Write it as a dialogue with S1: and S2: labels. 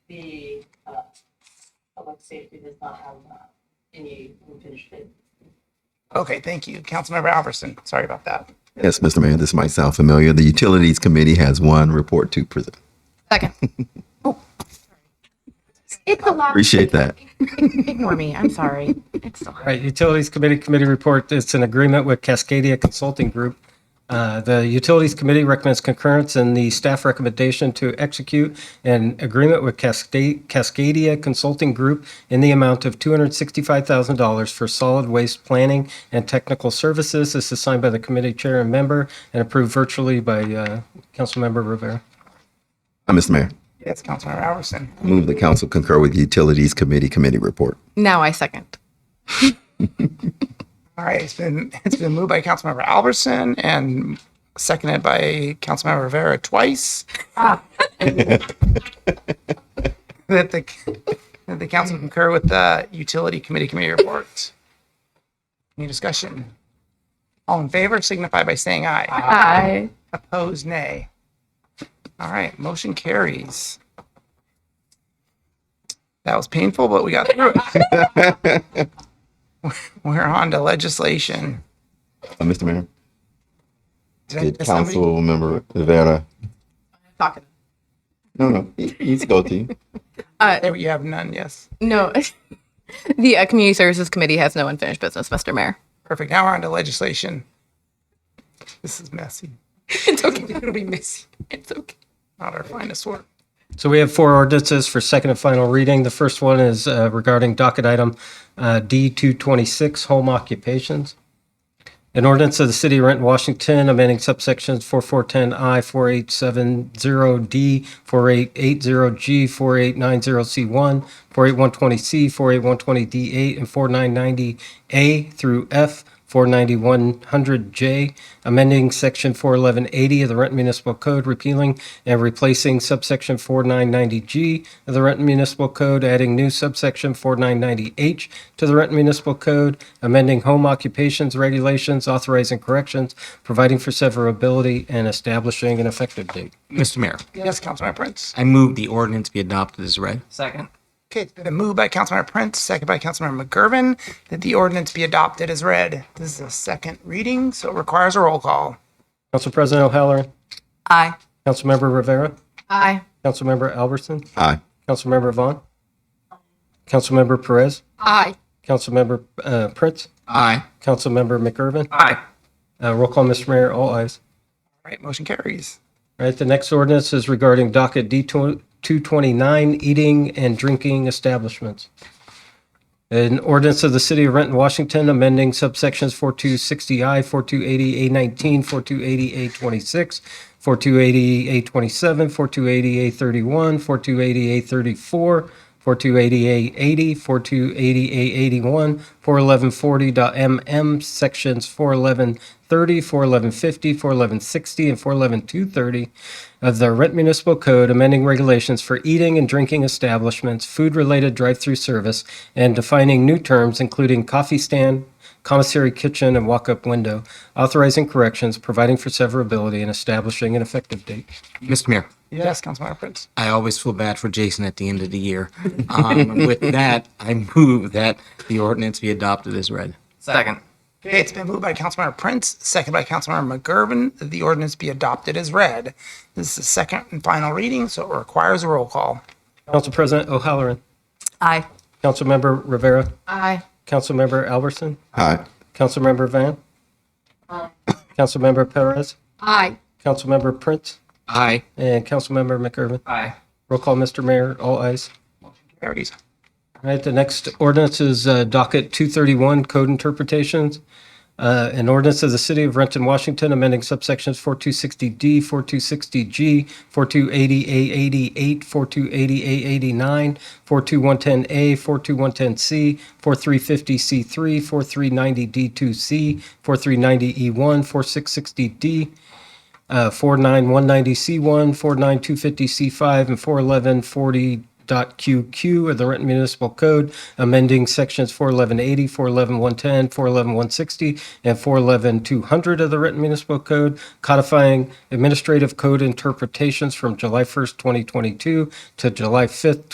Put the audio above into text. S1: the, uh, public safety does not have, uh, any unfinished business.
S2: Okay, thank you. Councilmember Alverson, sorry about that.
S3: Yes, Mr. Mayor, this might sound familiar. The Utilities Committee has one report to present.
S4: Second. Oh, It's a lot.
S3: Appreciate that.
S4: Ignore me. I'm sorry. It's so
S5: All Right, Utilities Committee Committee Report, it's an agreement with Cascadia Consulting Group. Uh, The Utilities Committee recommends concurrence in the staff recommendation to execute an agreement with Casca- Cascadia Consulting Group in the amount of $265,000 for solid waste planning and technical services. This is signed by the committee chair and member and approved virtually by uh, Councilmember Rivera.
S3: Uh, Mr. Mayor,
S2: Yes, Councilmember Alverson.
S3: I move the council concur with the Utilities Committee Committee report.
S4: Now I second.
S2: All right, it's been it's been moved by Councilmember Alverson and seconded by Councilmember Rivera twice. that the that the council concur with the utility committee committee report. Any discussion? All in favor signify by saying aye.
S4: Aye.
S2: Opposed, nay. All right, motion carries. That was painful, but we got through it. We're on to legislation.
S3: Uh, Mr. Mayor,
S2: Did I-
S3: did
S2: did somebody-
S3: council member Rivera?
S4: Talking.
S3: No, no, he- he's guilty.
S2: There you have none, yes.
S4: No. The uh, Community Services Committee has no unfinished business, Mr. Mayor.
S2: Perfect. Now we're on to legislation. This is messy.
S4: It's okay. It'll be messy. It's okay.
S2: Not our finest work.
S5: So we have four ordinances for second and final reading. The first one is uh, regarding docket item uh, D226, home occupations. An ordinance of the City of Renton, Washington, amending subsections 4410I, 4870D, 4880G, 4890C1, 48120C, 48120D8, and 4990A through F, 49100J, amending Section 41180 of the Renton Municipal Code, repealing and replacing subsection 4990G of the Renton Municipal Code, adding new subsection 4990H to the Renton Municipal Code, amending home occupations regulations, authorizing corrections, providing for severability, and establishing an effective date.
S6: Mr. Mayor,
S2: Yes, Councilmember Prince.
S6: I move the ordinance be adopted as read.
S1: Second.
S2: Okay, it's been moved by Councilmember Prince, second by Councilmember McGurven, that the ordinance be adopted as read. This is a second reading, so it requires a roll call.
S5: Council President O'Halloran,
S4: Aye.
S5: Councilmember Rivera,
S4: Aye.
S5: Councilmember Albertson,
S3: Aye.
S5: Councilmember Vaughn, Councilmember Perez,
S4: Aye.
S5: Councilmember uh, Prince,
S6: Aye.
S5: Councilmember McGurven.
S2: Aye.
S5: Uh, Roll call, Mr. Mayor, all ayes.
S2: All right, motion carries.
S5: All right, the next ordinance is regarding docket D two twenty-nine, eating and drinking establishments. An ordinance of the City of Renton, Washington, amending subsections 4260I, 4280A19, 4280A26, 4280A27, 4280A31, 4280A34, 4280A80, 4280A81, 41140.mm, sections 41130, 41150, 41160, and 411230 of the Rent Municipal Code, amending regulations for eating and drinking establishments, food-related drive-through service, and defining new terms, including coffee stand, commissary kitchen, and walk-up window, authorizing corrections, providing for severability, and establishing an effective date.
S6: Mr. Mayor,
S2: Yes, Councilmember Prince.
S6: I always feel bad for Jason at the end of the year. Um, with that, I move that the ordinance be adopted as read.
S1: Second.
S2: Okay, it's been moved by Councilmember Prince, second by Councilmember McGurven, that the ordinance be adopted as read. This is the second and final reading, so it requires a roll call.
S5: Council President O'Halloran,
S4: Aye.
S5: Councilmember Rivera,
S4: Aye.
S5: Councilmember Alverson,
S3: Aye.
S5: Councilmember Van, Councilmember Perez,
S4: Aye.
S5: Councilmember Prince,
S6: Aye.
S5: and Councilmember McGurven.
S1: Aye.
S5: Roll call, Mr. Mayor, all ayes.
S2: Carries.
S5: All right, the next ordinance is uh, docket 231, code interpretations. Uh, An ordinance of the City of Renton, Washington, amending subsections 4260D, 4260G, 4280A88, 4280A89, 42110A, 42110C, 4350C3, 4390D2C, 4390E1, 4660D, uh, 49190C1, 49250C5, and 41140.QQ of the Renton Municipal Code, amending sections 41180, 41110, 411160, and 411200 of the Renton Municipal Code, codifying administrative code interpretations from July 1st, 2022 to July 5th,